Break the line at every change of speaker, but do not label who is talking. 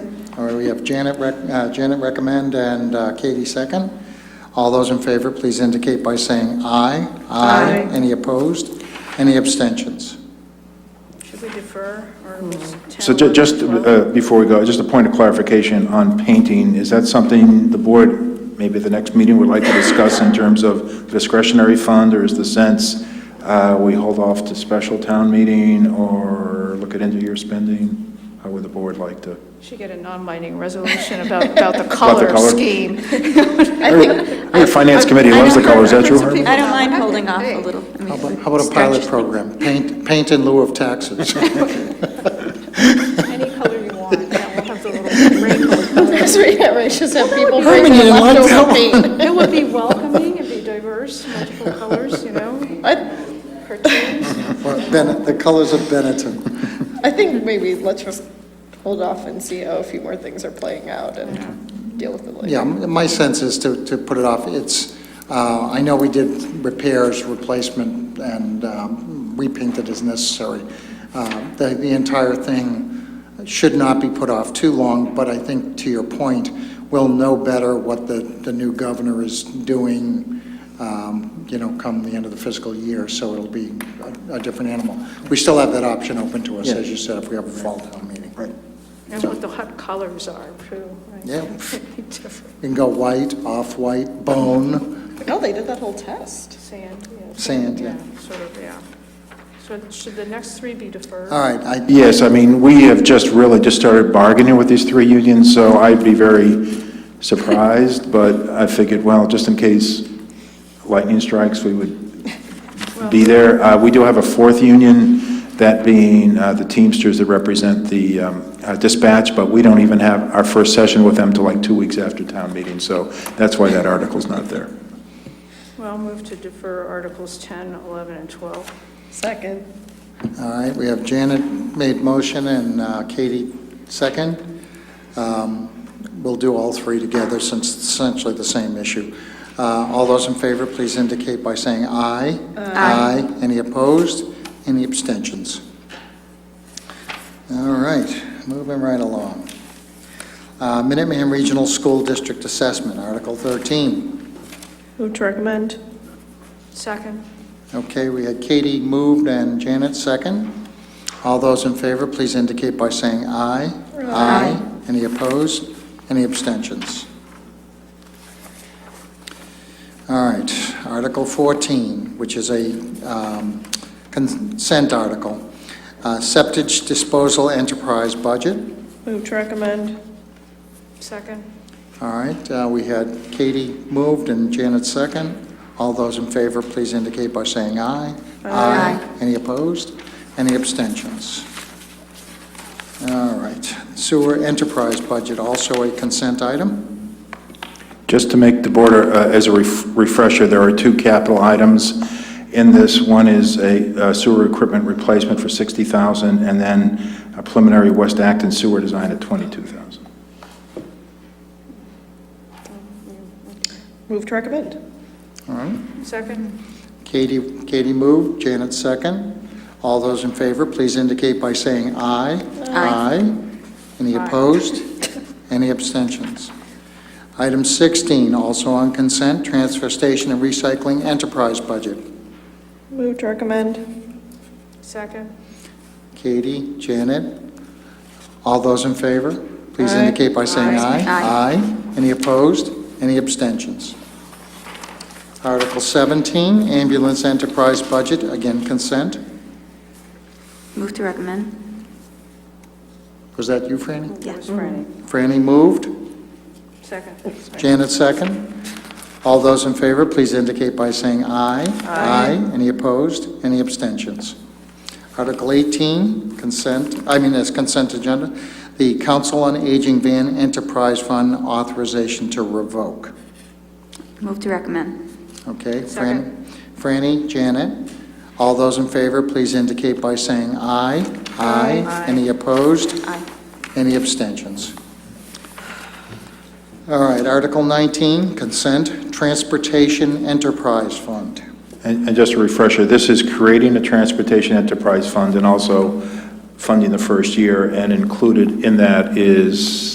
All right, we have Janet, rec- uh, Janet recommend and uh, Katie second. All those in favor, please indicate by saying aye.
Aye.
Any opposed? Any abstentions?
Should we defer, or was 10?
So ju- just uh, before we go, just a point of clarification on painting, is that something the board, maybe at the next meeting, would like to discuss in terms of discretionary fund, or is the sense uh, we hold off to special town meeting, or look at end-of-year spending? How would the board like to?
Should get a non-binding resolution about, about the color
color?
scheme.
Hey, Finance Committee loves the colors, is that true? Harvey?
I don't mind holding off a little. I
How
mean,
about how about a
stretch
pilot
it.
program? Paint, paint in lieu of taxes.
Any color you want, yeah, we'll have the little rainbow.
That's right, yeah, right, just have people
Herman,
bring
you
the
didn't like that
leftover
one?
paint.
It would be welcoming, it'd be diverse, multiple colors, you know,
I,
cartoons.
Well, Bennett- The colors of Bennetton.
I think maybe let's just hold off and see how a few more things are playing out and deal with it later.
Yeah, m- my sense is to, to put it off. It's, uh, I know we did repairs, replacement, and um, repainted as necessary. Uh, The, the entire thing should not be put off too long, but I think to your point, we'll know better what the, the new governor is doing, um, you know, come the end of the fiscal year, so it'll be a, a different animal. We still have that option open to us, as you said, if we have a fall town meeting. Right.
And what the hot colors are, too. right?
Yeah.
Be Different
You can go white, off-white, bone,
No, they did that whole test.
sand, yeah.
Sand, yeah.
Sort of, yeah. So should the next three be deferred?
All right, I,
Yes, I mean, we have just really just started bargaining with these three unions, so I'd be very surprised, but I figured, well, just in case lightning strikes, we would be there. Uh, We do have a fourth union, that being uh, the Teamsters that represent the um, uh, dispatch, but we don't even have our first session with them till like two weeks after town meeting, so that's why that article's not there.
Well, move to defer Articles 10, 11, and 12.
Second.
all right, we have Janet made motion and uh, Katie second. Um, We'll do all three together since it's essentially the same issue. Uh, All those in favor, please indicate by saying aye. Aye. Any opposed? Any abstentions? All right, moving right along. Uh, Minuteman Regional School District Assessment, Article 13.
Move to recommend.
Second?
Okay, we had Katie moved and Janet second. All those in favor, please indicate by saying aye. Aye. Any opposed? Any abstentions? All right, Article 14, which is a um, consent article, Uh, septage disposal enterprise budget.
Move to recommend.
Second?
All right, uh, we had Katie moved and Janet second. All those in favor, please indicate by saying aye. Aye. Any opposed? Any abstentions? All right, sewer enterprise budget, also a consent item.
Just to make the border, uh, as a ref- refresher, there are two capital items in this. One is a uh, sewer equipment replacement for 60,000, and then a preliminary West Acton sewer design at 22,000.
Move to recommend.
All right,
Second?
Katie, Katie moved, Janet second. All those in favor, please indicate by saying aye. Aye. Any
Aye.
opposed? Any abstentions? Item 16, also on consent, transfer station and recycling enterprise budget.
Move to recommend.
Second?
Katie, Janet, all those in favor, please
Aye.
indicate by saying aye.
Aye. Aye.
Any opposed? Any abstentions? Article 17, ambulance enterprise budget, again consent.
Move to recommend?
Was that you, Franny?
Yeah.
Was Franny?
Franny moved,
Mm-hmm.
Second?
Janet second. All those in favor, please indicate by saying aye. Aye. Any opposed? Any abstentions? Article 18, consent, I mean, as consent agenda, the Council on Aging Van Enterprise Fund authorization to revoke.
Move to recommend?
Okay? Fran-
Second.
Franny, Janet, all those in favor, please indicate by saying aye. Aye. Any opposed?
Aye.
Any abstentions? All right, Article 19, Consent Transportation Enterprise Fund.
And and just a refresher, this is creating a transportation enterprise fund and also funding the first year, and included in that is